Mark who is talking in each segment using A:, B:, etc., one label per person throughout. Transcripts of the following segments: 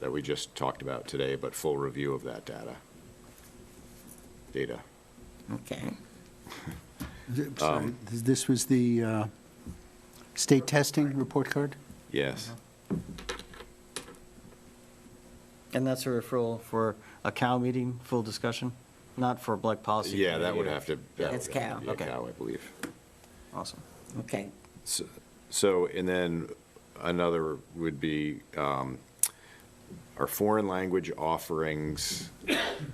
A: that we just talked about today, but full review of that data. Data.
B: Okay.
C: Th- Sorry, th- this was the uh, state testing report card?
A: Yes.
D: And that's a referral for a Cal meeting, full discussion, not for Black Policy.
A: Yeah, that
D: Committee
A: would
D: or-
A: have to.
D: Yeah.
A: that
B: It's
A: would have to
B: Cal.
A: be a
D: Okay.
A: Cal, I believe.
D: Awesome.
B: Okay,
A: S- So, and then another would be um, our foreign language offerings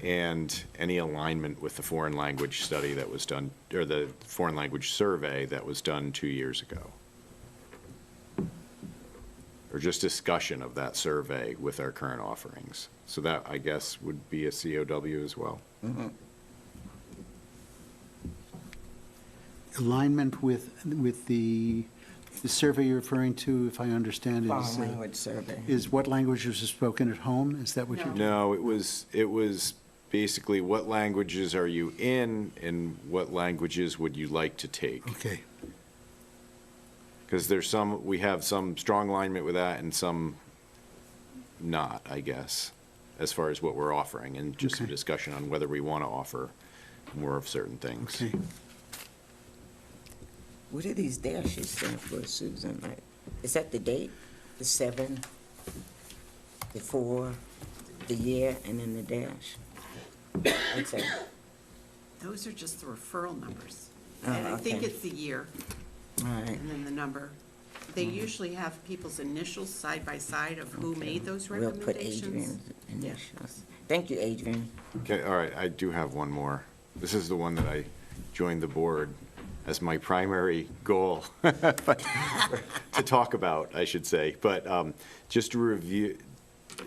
A: and any alignment with the foreign language study that was done, or the foreign language survey that was done two years ago. Or just discussion of that survey with our current offerings. So that, I guess, would be a COW as well.
C: Alignment with, with the, the survey you're referring to, if I understand,
B: foreign
C: is, uh,
B: language survey.
C: is what languages are spoken at home? Is that what you're?
A: No, it was, it was basically what languages are you in and what languages would you like to take?
C: Okay,
A: Because there's some, we have some strong alignment with that and some not, I guess, as far as what we're offering and just some
C: Okay.
A: discussion on whether we want to offer more of certain things.
C: okay.
B: What do these dashes stand for, Susan? Like, Is that the date, the seven, the four, the year, and then the dash? What's that?
E: Those are just the referral numbers.
B: Oh,
E: And I think
B: okay.
E: it's the year
B: All right,
E: and then the number. They
B: Mm-hmm.
E: usually have people's initials side by side of who made those
B: we'll put Adrian's
E: recommendations. Yeah.
B: initials. Thank you, Adrian.
A: Okay, all right, I do have one more. This is the one that I joined the board as my primary goal but- to talk about, I should say. But um, just a review,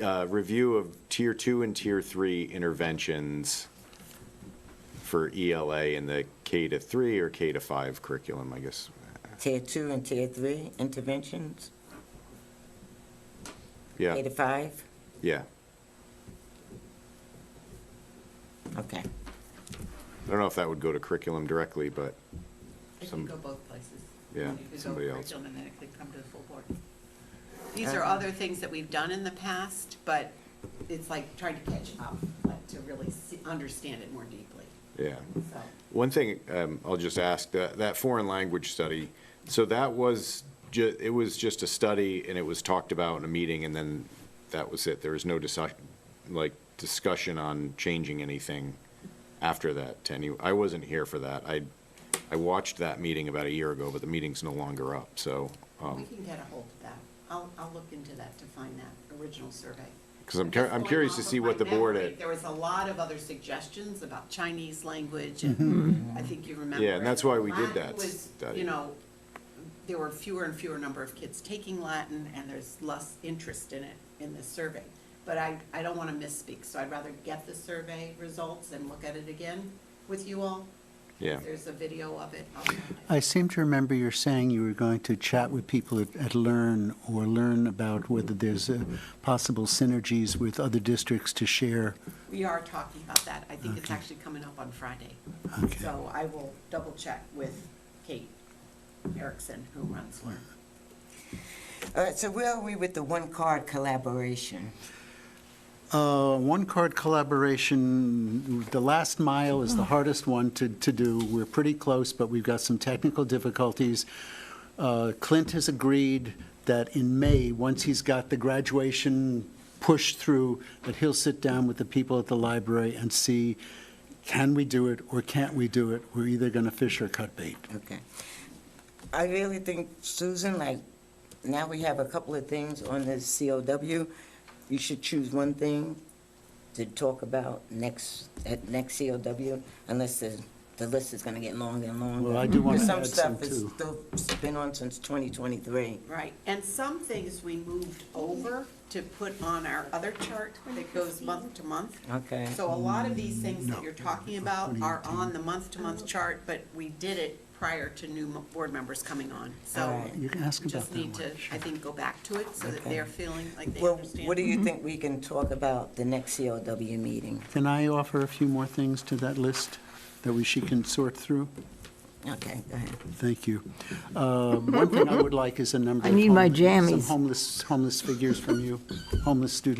A: uh, review of tier two and tier three interventions for E ELA in the K to three or K to five curriculum, I guess.
B: Tier two and tier three interventions,
A: Yeah,
B: K to five?
A: yeah.
B: Okay.
A: I don't know if that would go to curriculum directly, but
F: It
A: Some-
F: could go both places.
A: Yeah,
F: You could go
A: somebody else.
F: curriculum and then it could come to the full board.
E: These are
B: Uh-huh.
E: other things that we've done in the past, but it's like trying to catch up, like to really see- understand it more deeply,
A: yeah.
E: so.
A: One thing um, I'll just ask, that, that foreign language study, so that was, ju- it was just a study and it was talked about in a meeting and then that was it? There was no discussion, like discussion on changing anything after that to any, I wasn't here for that. I, I watched that meeting about a year ago, but the meeting's no longer up, so, um,
E: We can get a hold of that. I'll, I'll look into that to find that original survey.
A: because I'm, cur-
E: Just
A: I'm
E: going
A: curious to
E: off of
A: see
E: my
A: what the board
E: memory,
A: had.
E: There was a lot of other suggestions about Chinese language, and I think you remember.
A: Yeah, and that's why we did
E: Latin
A: that
E: was,
A: study.
E: You know, there were fewer and fewer number of kids taking Latin, and there's less interest in it in this survey. But I, I don't want to misspeak, so I'd rather get the survey results and look at it again with you all.
A: Yeah.
E: There's a video of it. I'll find it.
C: I seem to remember you're saying you were going to chat with people at, at Learn or learn about whether there's uh, possible synergies with other districts to share.
E: We are talking about that. I think it's
C: Okay.
E: actually coming up on Friday.
C: Okay.
E: So I will double check with Kate Erickson, who runs Learn.
B: All right, Uh, so where are we with the one-card collaboration?
C: Uh, One-card collaboration, the last mile is the hardest one to, to do. We're pretty close, but we've got some technical difficulties. Uh, Clint has agreed that in May, once he's got the graduation pushed through, that he'll sit down with the people at the library and see, can we do it or can't we do it? We're either going to fish or cut bait.
B: Okay. I really think, Susan, like, now we have a couple of things on the COW. You should choose one thing to talk about next, at next COW, unless the, the list is gonna get longer and longer.
C: Well, I do wanna
B: 'Cause
C: add some, too.
B: Some stuff has still been on since 2023.
E: Right, and some things we moved over to put on our other chart that goes month to month.
B: Okay.
E: So a lot of these things
C: No.
E: that you're talking about are on the month-to-month chart, but we did it prior to new mo- board members coming on. So
B: Alright.
C: You can ask about
E: just
C: that
E: need to,
C: one.
E: I think, go back to it so that
B: Okay.
E: they're feeling like they
B: Well,
E: understand.
B: what do you think we can talk about the next COW meeting?
C: Can I offer a few more things to that list that we, she can sort through?
B: Okay, go ahead.
C: Thank you. Uh, One thing I would like is a number.
G: I
C: of
G: need my
C: homeless- Some
G: jammies.
C: homeless, homeless figures from you, homeless students.